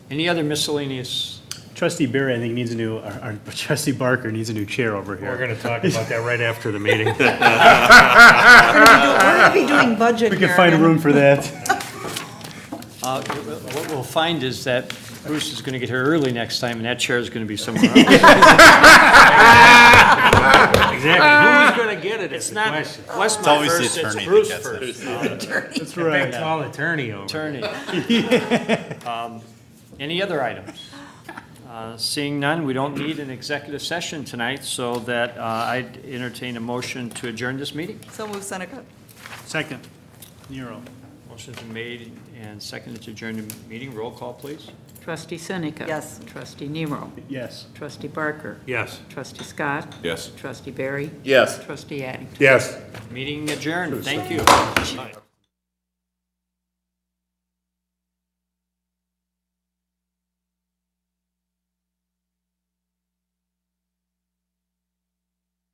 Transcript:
Any other miscellaneous? Trustee Barry, I think, needs a new, or or trustee Barker needs a new chair over We're here. going to talk about that right after the meeting. We're gonna be doing budget Ah, We here. could find room for that. Uh, What we'll find is that Bruce is going to get here early next time, and that chair is going to be somewhere else. Exactly. Who's going to get it? It's It's not not Wes always the first, it's attorney that Bruce gets it. first. That's right. all attorney over. Attorney. Um, Any other items? Uh, Seeing none, we don't need an executive session tonight, so that uh, I'd entertain a motion to adjourn this meeting. So move Seneca. Second, Nero. Motion's been made and seconded to adjourn the meeting. Roll call, please. Trustee Seneca. Yes. Trustee Nero. Yes. Trustee Barker. Yes. Trustee Scott. Yes. Trustee Barry. Yes. Trustee Addington. Yes. Meeting adjourned. Thank you.